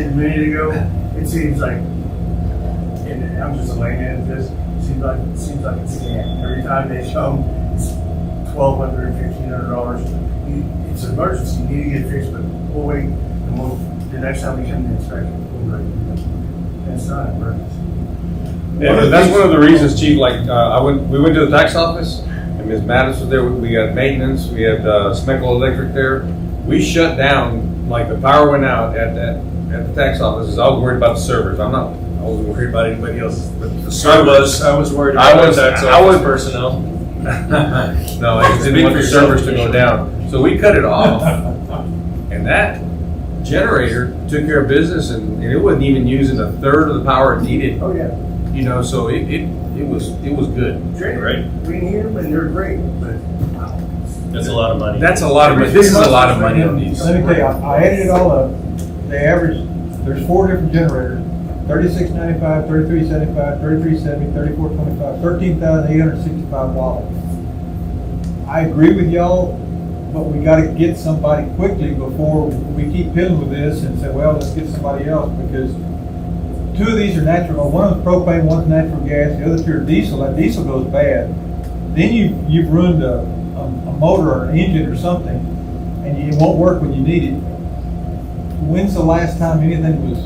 a minute ago, it seems like, and I'm just laying at this, seems like, seems like it's scam. Every time they show them, it's twelve hundred, fifteen hundred dollars. You- It's an emergency, you need to get it fixed, but we'll wait, and we'll, the next time we come to inspect, we'll wait. And It's not an emergency. Yeah, that's one of the reasons, Chief, like, uh, I went, we went to the tax office, and Ms. Mattis was there, we had maintenance, we had, uh, Smeckle Electric there. We shut down, like, the power went out at, at, at the tax office, I was worried about the servers, I'm not, I wasn't worried about anybody else, but the I servers. was, I was worried I about was- that, so I was- personnel. No, I just didn't want the servers to go down, so we cut it off, and that generator took care of business, and, and it wasn't even using a third of the power it needed, Oh, yeah, you know, so it, it, it was, it was good. Drake, we need them and they're great, but wow. That's a lot of money. That's a lot of money. This is a lot of money on these. Let me tell you, I I added it all up, the average, there's four different generators, thirty-six ninety-five, thirty-three seventy-five, thirty-three seventy, thirty-four twenty-five, thirteen thousand eight hundred sixty-five dollars. I agree with y'all, but we gotta get somebody quickly before we keep piddling with this and say, well, let's get somebody else, because two of these are natural, one of them's propane, one's natural gas, the other two are diesel, that diesel goes bad. Then you, you've ruined a, a a motor or an engine or something, and it won't work when you need it. When's the last time anything was,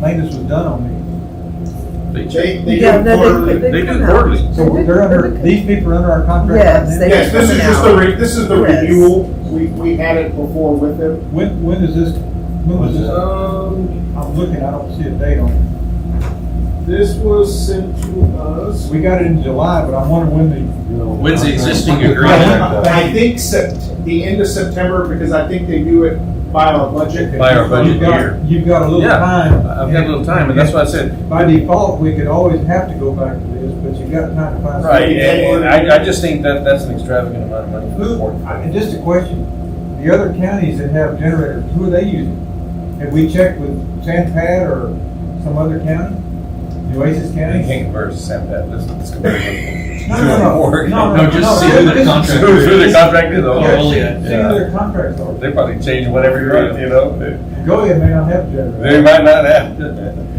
maintenance was done on these? They They, they Yeah, do no, quarterly. they, They they do come out. quarterly. They So did- they're they under, did- these people are under our contract right Yes, now? they- Yes, this is just the, re- this is the Yes. renewal. We, we had it before with them. When, when is this, when was this? Um, I'm looking, I don't see a date on it. this was sent to us. We got it in July, but I'm wondering when When's the existing uh, agreement? I think Sept, the end of September, because I think they do it by our budget. the. By our budget You've got- year. You've got a little Yeah, time. I've got a little time, and that's why I said, By default, we could always have to go back to this, but you got time to find. right, something. and and I, I just think that that's an extravagant amount of money for the Who, court. I- and just a question, the other counties that have generators, who are they using? Have we checked with San Pat or some other county? Oasis And County? can't convert to Sam Pat, let's, let's compare them. No, no, no. Or- No, No, just see who the Who this- contract who the is. contract is, Yeah, oh, only see- a- see who their contracts are. they probably change whatever you're on, you know? Goliad may not have They generators, might not have,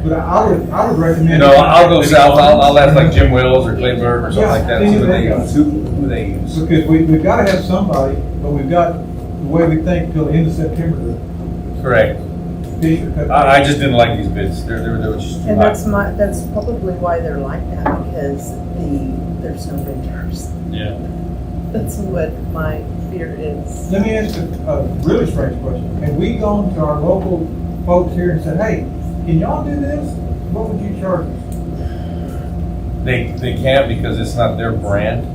but I would, I would recommend. you know, I'll go south, I'll, I'll ask like Jim Wells or Clay Burke or something like that, Yeah, see who they they, got. who, who they use. Because we, we've gotta have somebody, but we've got, the way we think, till the end of September, Correct, the fish are cut. I, I just didn't like these bids, they're, they're, they're just too And high. that's my, that's probably why they're like that, because the, there's no vendors. Yeah. That's what my fear is. Let me ask a, a really strange question. Have we gone to our local folks here and said, hey, can y'all do this? What would you charge? us?" They, they can't because it's not their brand.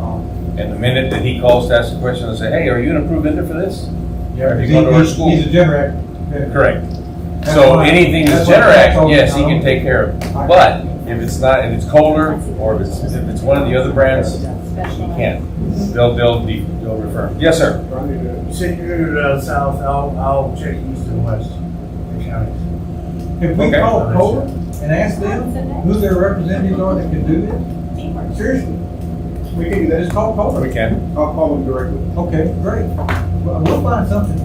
Um, And the minute that he calls to ask a question and say, hey, are you an approved vendor for this? Yeah, If he's, you go to our he's school. he's a generator. Correct. That's So why- anything that's that's why that's Generac, all yes, he we can know. take care of. But if it's not, if it's Kohler or if it's, if it's one of the other brands, he can't. They'll, they'll, be- they'll refer. him. Yes, sir. You said you're gonna go down south, I'll, I'll check east and west, the counties. If we Okay. call Kohler and ask them who their representatives are that can do this, seriously, We can do that. just call Kohler. We can. I'll call them directly. Okay, great. Well, We'll find something.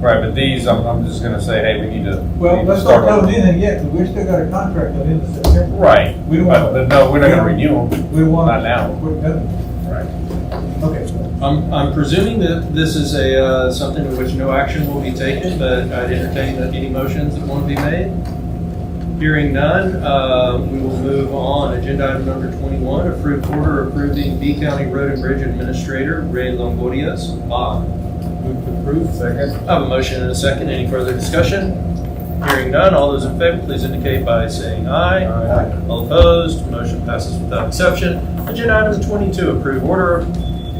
Right, but these, I'm, I'm just gonna say, hey, we need to. we Well, need to let's not start tell over. them anything yet, because we still got a contract till the end of September. Right. We don't But, want, but no, we're not gonna renew them. we don't want. Not now. We're done. Right. Okay. I'm, I'm presuming that this is a, uh, something in which no action will be taken, but I'd entertain that any motions that want to be made. Hearing none, uh, we will move on. Agenda item number twenty-one, approved order approving B County Road and Bridge Administrator Ray Longoria's bond. Move to approve. Second. I have a motion and a second. Any further discussion? Hearing none, all those in favor, please indicate by saying aye. Aye. All opposed, motion passes without exception. Agenda item twenty-two, approve order,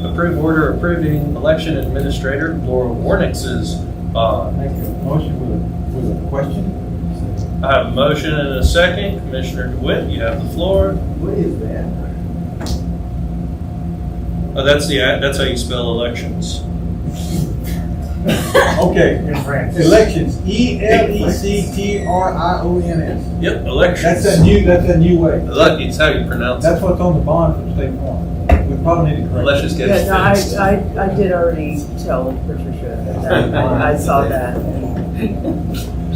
approve order approving election administrator Laura Warnix's uh, bond. Make a motion with a, with a question? I have a motion and a second. Commissioner DeWitt, you have the floor. What is that? Oh, that's the, that's how you spell elections. Okay, In France. elections, E L E C T R I O N S. Yep, elections. That's a new, that's a new way. Elec- It's how you pronounce it. That's what's on the bond from State Farm. We probably need to correct. Let's just get Yeah, it no, I, fixed. I, I did already tell Patricia that, I I saw that.